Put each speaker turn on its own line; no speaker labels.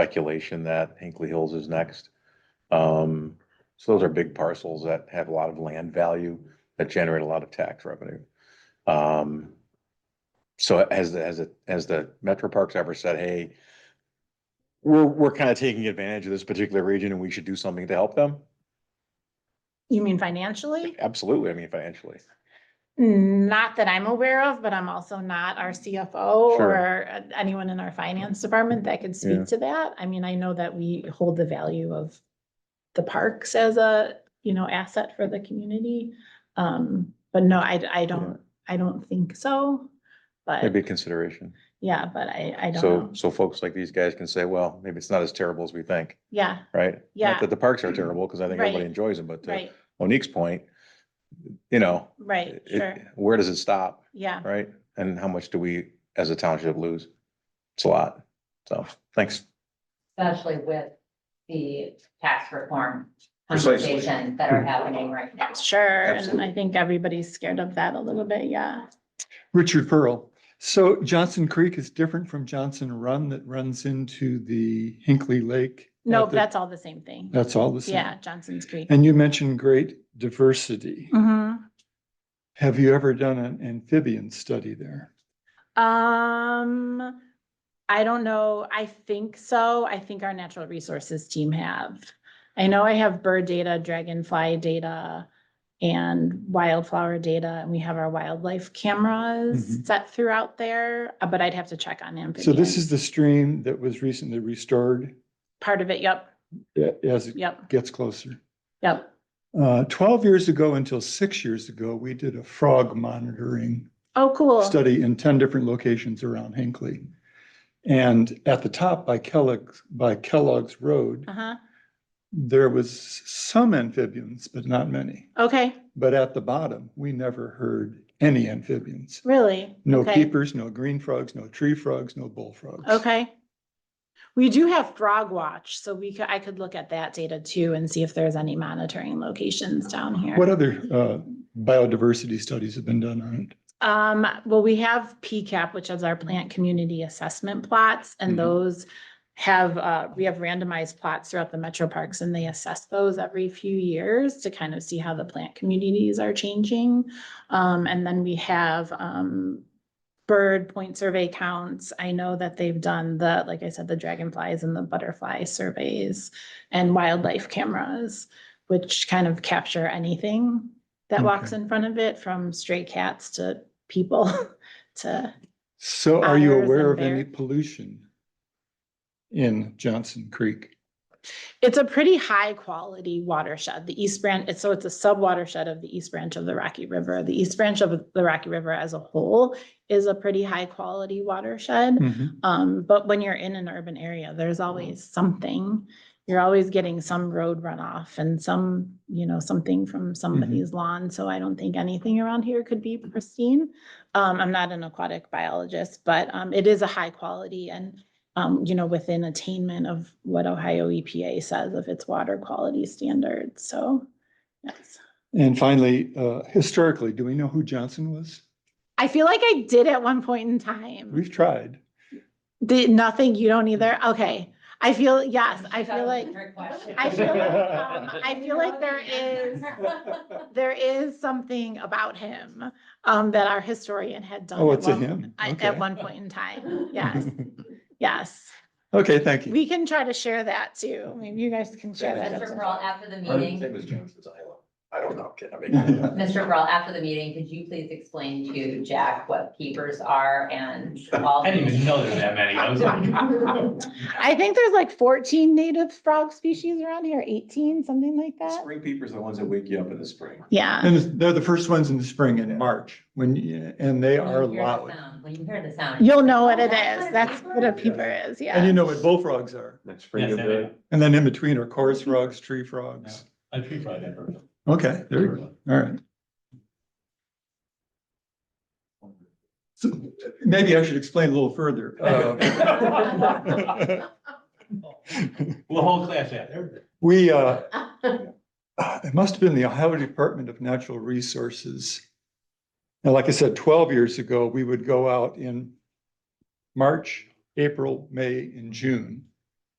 speculation that Hinkley Hills is next. Um, so those are big parcels that have a lot of land value that generate a lot of tax revenue. Um, so has, the- has, the- has the Metro Parks ever said, hey, we're, we're kind of taking advantage of this particular region and we should do something to help them?
You mean financially?
Absolutely, I mean financially.
Not that I'm aware of, but I'm also not our CFO
Mm. Sure.
or uh, anyone in our finance department that could
Yeah.
speak to that. I mean, I know that we hold the value of the parks as a, you know, asset for the community. Um, but no, I, I don't, I don't think so. But
Maybe a consideration.
yeah, but I, I don't
So,
know.
so folks like these guys can say, well, maybe it's not as terrible as we think,
Yeah,
right? Not
Yeah.
That the parks are terrible, because I think everybody
Right.
enjoys them, but uh, to
right,
Monique's point, you know,
right, sure,
it, where does it stop,
yeah.
right? And how much do we, as a township, lose? It's a lot. So, thanks.
especially with the tax reform
Precisely.
conversations that are happening right now.
Sure, and I
Absolutely.
think everybody's scared of that a little bit, yeah.
Richard Pearl. So Johnson Creek is different from Johnson Run that runs into the Hinkley Lake.
No,
at the-
that's all the same thing.
That's all the same.
Yeah, Johnson's Creek.
And you mentioned great diversity.
Mhm.
Mm-hmm. Have you ever done an amphibian study there?
Um, I don't know. I think so. I think our natural resources team have. I know I have bird data, dragonfly data, and wildflower data, and we have our wildlife cameras
Mhm.
set throughout there, uh, but I'd have to check on amphibians.
So this is the stream that was recently restored
Part of it, yep,
a- as it
yep,
gets closer.
yep.
Uh, Twelve years ago until six years ago, we did a frog monitoring
Oh, cool.
study in ten different locations around Hinkley. And at the top by Kellogg's, by Kellogg's Road,
Uh-huh,
there was some amphibians, but not many.
okay,
But at the bottom, we never heard any amphibians.
really?
No
Okay.
keepers, no green frogs, no tree frogs, no bullfrogs.
Okay. We do have Frog Watch, so we could, I could look at that data too and see if there's any monitoring locations down here.
What other uh, biodiversity studies have been done on it?
Um, well, we have PCAP, which is our plant community assessment plots,
Mhm.
and those have, uh, we have randomized plots throughout the metro parks and they assess those every few years to kind of see how the plant communities are changing. Um, and then we have, um, bird point survey counts. I know that they've done the, like I said, the dragonflies and the butterfly surveys and wildlife cameras, which kind of capture anything that walks in front of it from stray cats to people to,
So are you
Otters
aware of
and
any
bear-
pollution in Johnson Creek?
it's a pretty high quality watershed. The East Branch, it's- so it's a sub watershed of the East Branch of the Rocky River. The East Branch of the Rocky River as a whole is a pretty high quality watershed.
Mhm.
Um, but when you're in an urban area, there's always something. You're always getting some road runoff and some, you know, something from somebody's lawn. So I don't think anything around here could be pristine. Um, I'm not an aquatic biologist, but, um, it is a high quality and, um, you know, within attainment of what Ohio EPA says of its water quality standards. So, yes.
And finally, uh, historically, do we know who Johnson was?
I feel like I did at one point in time.
We've tried.
Did nothing, you don't either? Okay. I feel, yes, I
That
feel
was a
like,
trick question.
I feel like, um, I feel like there is, there is something about him, um, that our historian had done.
Oh,
at
it's a
one-
him.
I-
Okay.
At one point in time. Yes, yes.
Okay, thank you.
We can try to share that too. Maybe you guys can share that.
Mr.
as
Pearl, after the meeting,
was Johnson's Island. I don't know, kid, I mean.
Mr. Pearl, after the meeting, could you please explain to Jack what keepers are and all?
I didn't even know there were that many. I was like.
well. I think there's like fourteen native frog species around here, eighteen, something like that.
Spring peepers are the ones that wake you up in the spring.
Yeah,
Uh-huh.
And they're the first ones in the spring in March when, you- and they
When you
are
hear the
loud.
sound- When you hear the sound.
you'll know what
Oh,
it is. That's what a peeper is, yeah.
And you know what bullfrogs are.
Next spring,
Yes,
you'll
I
do
did.
it.
And then in between are chorus
Mm-hmm.
frogs, tree frogs.
I tree fried that bird.
Okay, there you go. All right. So maybe I should explain a little further. Uh,
Well, whole class after.
We, uh, it must have been the Ohio Department of Natural Resources. And like I said, twelve years ago, we would go out in March, April, May, and June